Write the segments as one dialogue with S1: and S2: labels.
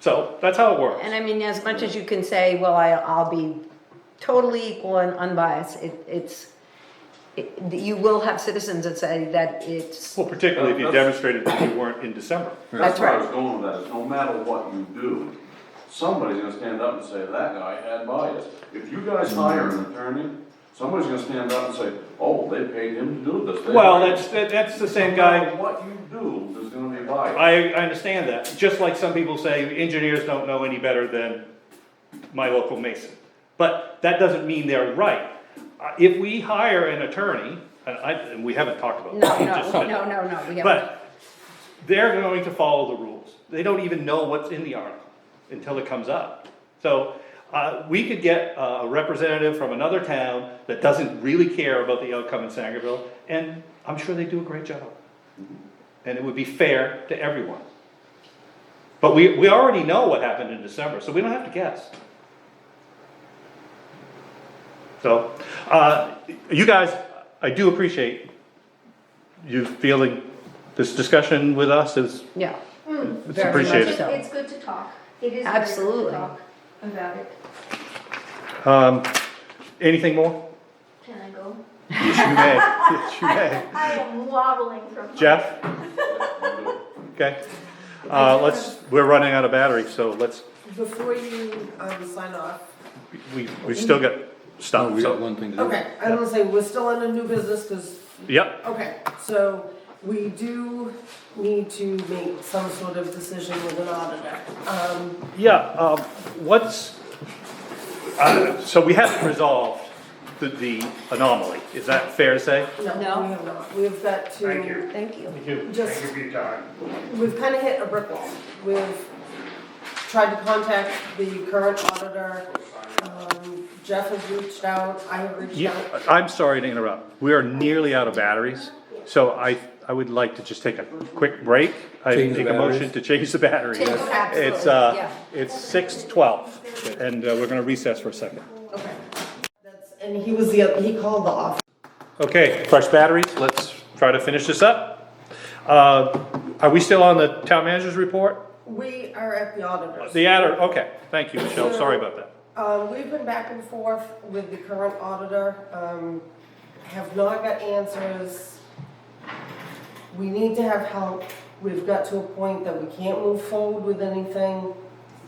S1: So that's how it works.
S2: And I mean, as much as you can say, well, I, I'll be totally equal and unbiased, it, it's, it, you will have citizens that say that it's,
S1: Well, particularly if you
S3: That's-
S1: demonstrated that you weren't in December.
S3: That's
S2: That's
S3: where I
S2: right.
S3: was going with that, is no matter what you do, somebody's gonna stand up and say, that guy had bias. If you guys
S1: Mm-hmm.
S3: hire an attorney, somebody's gonna stand up and say, oh, they paid him to do this. They
S1: Well,
S3: hired
S1: that's, that- that's the
S3: him."
S1: same
S3: No
S1: guy,
S3: matter What you do, there's gonna be bias.
S1: I, I understand that, just like some people say engineers don't know any better than my local mason. But that doesn't mean they're right. Uh, If we hire an attorney, and I, and we haven't talked about.
S2: no,
S1: that,
S2: no,
S1: just-
S2: no, no, no, we haven't.
S1: But they're going to follow the rules. They don't even know what's in the article until it comes up. So, uh, we could get a representative from another town that doesn't really care about the outcome in Sangerville, and I'm sure they do a great job. And it would be fair to everyone. But we, we already know what happened in December, so we don't have to guess. So, uh, you guys, I do appreciate you feeling this discussion with us is,
S2: Yeah,
S1: it's
S2: very much
S1: appreciated.
S2: so.
S4: It's good to talk. It is. very good to
S2: Absolutely.
S4: talk About it.
S1: um, anything more?
S4: Can I go?
S1: Yes, you may, yes, you may.
S4: I am wobbling from.
S1: Jeff, okay, uh, let's, we're running out of battery, so let's,
S5: Before you, um, sign off,
S1: we, we still got stuff,
S6: We got
S1: so,
S6: one thing to do.
S5: okay, I was gonna say, we're still in a new business, cause,
S1: yep,
S5: okay, so we do need to make some sort of decision with an auditor. Um,
S1: yeah, um, what's, uh, so we haven't resolved the, the anomaly, is that fair to say?
S5: no, we
S2: No.
S5: have not, we've got to.
S7: Thank you.
S2: Thank you.
S1: Thank you.
S5: Just-
S7: Thank you for your time.
S5: We've kinda hit a brick wall, we've tried to contact the current auditor, um, Jeff has reached out, I have reached
S1: Yeah,
S5: out.
S1: I'm sorry to interrupt. We are nearly out of batteries, so I, I would like to just take a quick break. I
S6: Change the
S1: make a motion
S6: batteries?
S1: to change the batteries.
S2: Change the batteries,
S1: It's, uh,
S2: yeah.
S1: it's six twelve, and uh, we're gonna recess for a second.
S5: Okay. That's, and he was the, he called the office.
S1: Okay, fresh batteries, let's try to finish this up. Uh, are we still on the town manager's report?
S5: We are at the auditor's.
S1: The adder, okay, thank you, Michelle, sorry about that.
S5: Um, we've been back and forth with the current auditor, um, have not got answers. We need to have help, we've got to a point that we can't move forward with anything.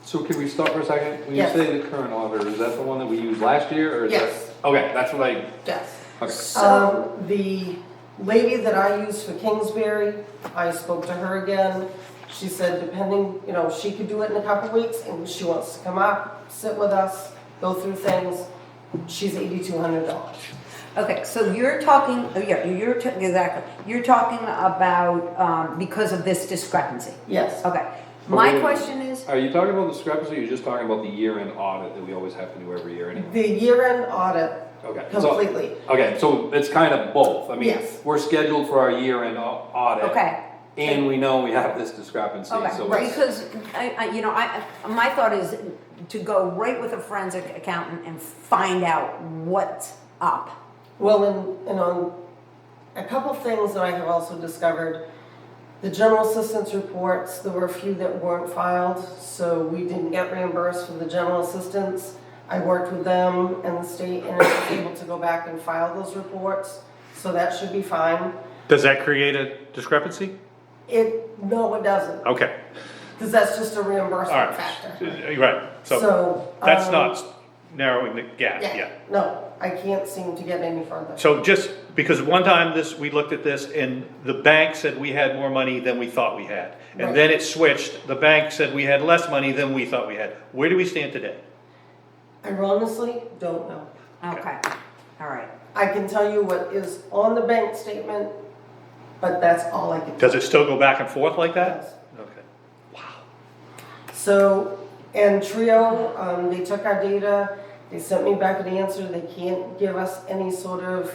S6: So can we stop for a second? When you
S5: Yes.
S6: say the current auditor, is that the one that we used last year or is that?
S5: Yes.
S6: Okay, that's what I,
S5: Yes.
S6: okay.
S5: Um, the lady that I use for Kingsbury, I spoke to her again. She said depending, you know, she could do it in a couple weeks and she wants to come up, sit with us, go through things. She's eighty-two hundred dollars.
S2: Okay, so you're talking, oh, yeah, you're, ta- exactly, you're talking about, um, because of this discrepancy.
S5: Yes.
S2: Okay, my
S6: Okay.
S2: question is,
S6: Are you talking about discrepancy or you're just talking about the year-end audit that we always have to do every year anyway?
S5: The year-end audit
S6: Okay. so-
S5: completely.
S6: Okay, so it's kind of both. I mean,
S5: Yes.
S6: we're scheduled for our year-end au- audit.
S2: okay.
S6: And we know we have this discrepancy, so
S2: Okay,
S6: it's,
S2: because, I, I, you know, I, I- my thought is to go right with a forensic accountant and find out what's up.
S5: Well, and, and on a couple things that I have also discovered, the general assistance reports, there were a few that weren't filed, so we didn't get reimbursed for the general assistance. I worked with them and the state and I was able to go back and file those reports, so that should be fine.
S1: Does that create a discrepancy?
S5: It, no, it doesn't,
S1: Okay,
S5: because that's just a
S1: all
S5: reimbursement
S1: right,
S5: factor.
S1: right, so
S5: So.
S1: that's
S5: um,
S1: not narrowing the gap, yeah.
S5: No, I can't seem to get any further.
S1: So just, because one time this, we looked at this and the bank said we had more money than we thought we had. And
S5: Right.
S1: then it switched, the bank said we had less money than we thought we had. Where do we stand today?
S5: I honestly don't know.
S2: Okay, all right.
S5: I can tell you what is on the bank statement, but that's all I can.
S1: Does it still go back and forth like that?
S5: Yes.
S1: Okay.
S5: So, and Trio, um, they took our data, they sent me back an answer, they can't give us any sort of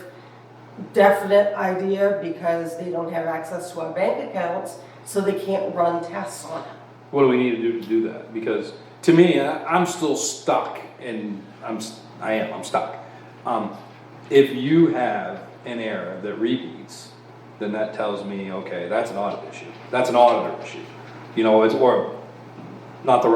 S5: definite idea because they don't have access to our bank accounts, so they can't run tests on it.
S6: what do we need to do to do that? Because to me, I, I'm still stuck and I'm, s- I am, I'm stuck. Um, if you have an error that repeats, then that tells me, okay, that's an audit issue. That's an auditor issue. You know, it's, or not the right